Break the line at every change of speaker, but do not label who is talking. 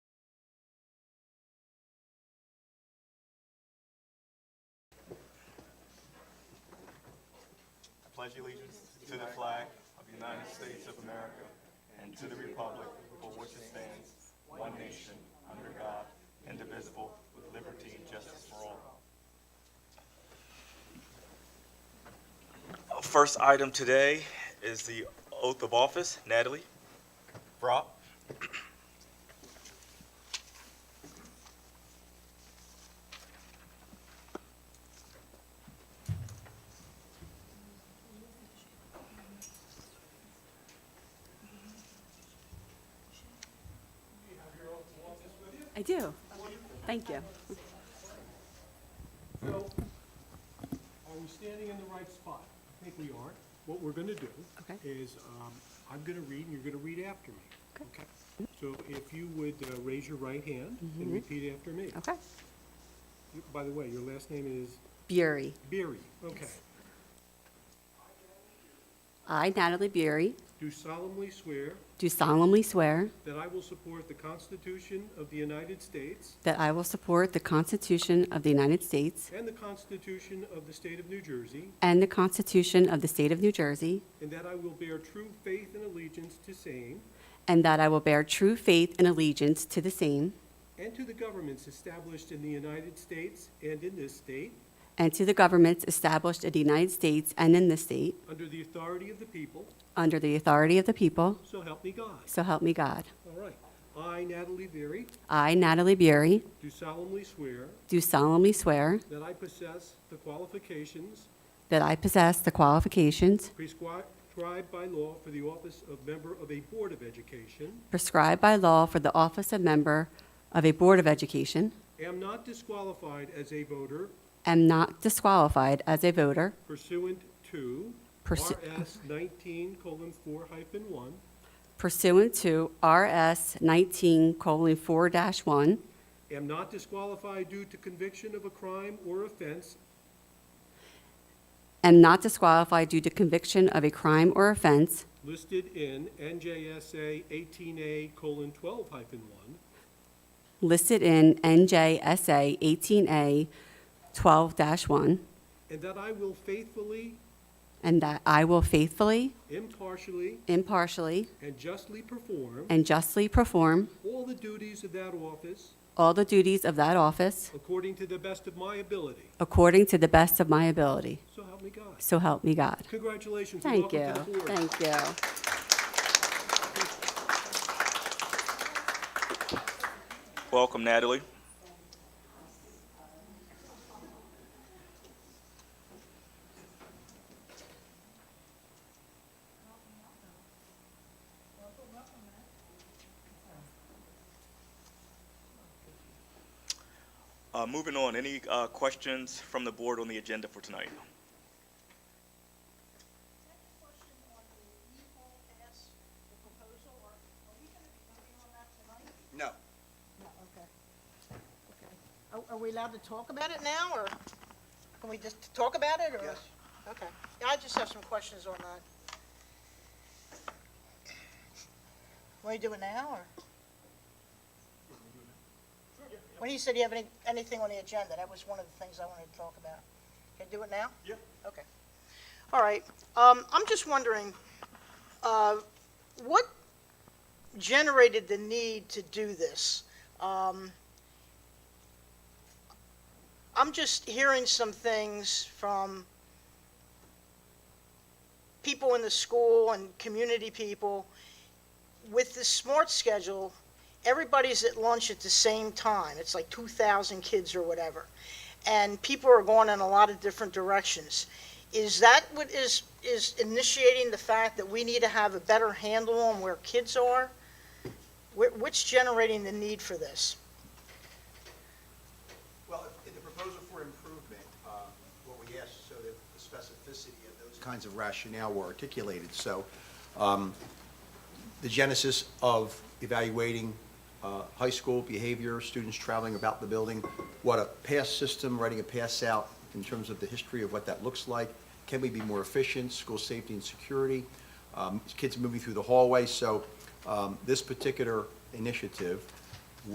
pledge allegiance to the flag of the United States of America and to the republic for which it stands, one nation, under God, indivisible, with liberty and justice for all.
First item today is the oath of office. Natalie?
Brock?
I do. Thank you.
So, are we standing in the right spot? I think we are. What we're gonna do
Okay.
is, um, I'm gonna read and you're gonna read after me.
Okay.
So if you would uh, raise your right hand and repeat after me.
Mm-hmm. Okay.
You- By the way, your last name is
Bury.
Beery. Okay.
I, Natalie Bury,
Do solemnly swear
do solemnly swear
that I will support the Constitution of the United States
that I will support the Constitution of the United States
and the Constitution of the State of New Jersey,
and the Constitution of the State of New Jersey,
and that I will bear true faith and allegiance to same
and that I will bear true faith and allegiance to the same
and to the governments established in the United States and in this state,
and to the governments established in the United States and in this state,
Under the authority of the people,
under the authority of the people,
so help me God.
so help me God.
All right. I, Natalie Berry,
I, Natalie Bury,
do solemnly swear
do solemnly swear
that I possess the qualifications
that I possess the qualifications
prescribed by law for the office of member of a Board of Education,
prescribed by law for the office of member of a Board of Education,
am not disqualified as a voter
am not disqualified as a voter
pursuant to
Pursu-
RS 19:4-1,
pursuant to RS 19:4-1,
am not disqualified due to conviction of a crime or offense
am not disqualified due to conviction of a crime or offense
listed in NJSA 18A:12-1,
listed in NJSA 18A 12-1,
And that I will faithfully,
and that I will faithfully,
impartially,
impartially,
and justly perform
and justly perform
all the duties of that office
all the duties of that office
according to the best of my ability.
according to the best of my ability.
So help me God.
So help me God.
Congratulations. and
Thank you.
welcome to the board.
Thank you.
Welcome, Natalie. Uh, Moving on, any uh, questions from the board on the agenda for tonight?
question on the legal ask, the proposal, or are we gonna be voting on that tonight?
No.
No, okay. Okay. Are, are we allowed to talk about it now, or can we just talk about it, or?
Yes.
Okay. Yeah, I just have some questions on that. Want to do it now, or? When you said you have any, anything on the agenda, that was one of the things I wanted to talk about. Can I do it now?
Yeah.
Okay. All right. Um, I'm just wondering, uh, what generated the need to do this? Um, I'm just hearing some things from people in the school and community people. With the SMART schedule, everybody's at lunch at the same time. It's like 2,000 kids or whatever. And people are going in a lot of different directions. Is that what is, is initiating the fact that we need to have a better handle on where kids are? Wh- What's generating the need for this?
Well, in the proposal for improvement, uh, what we asked so that the specificity of those kinds of rationale were articulated. So um, the genesis of evaluating uh, high school behavior, students traveling about the building, what a pass system, writing a pass out in terms of the history of what that looks like, can we be more efficient, school safety and security, um, kids moving through the hallway. So um, this particular initiative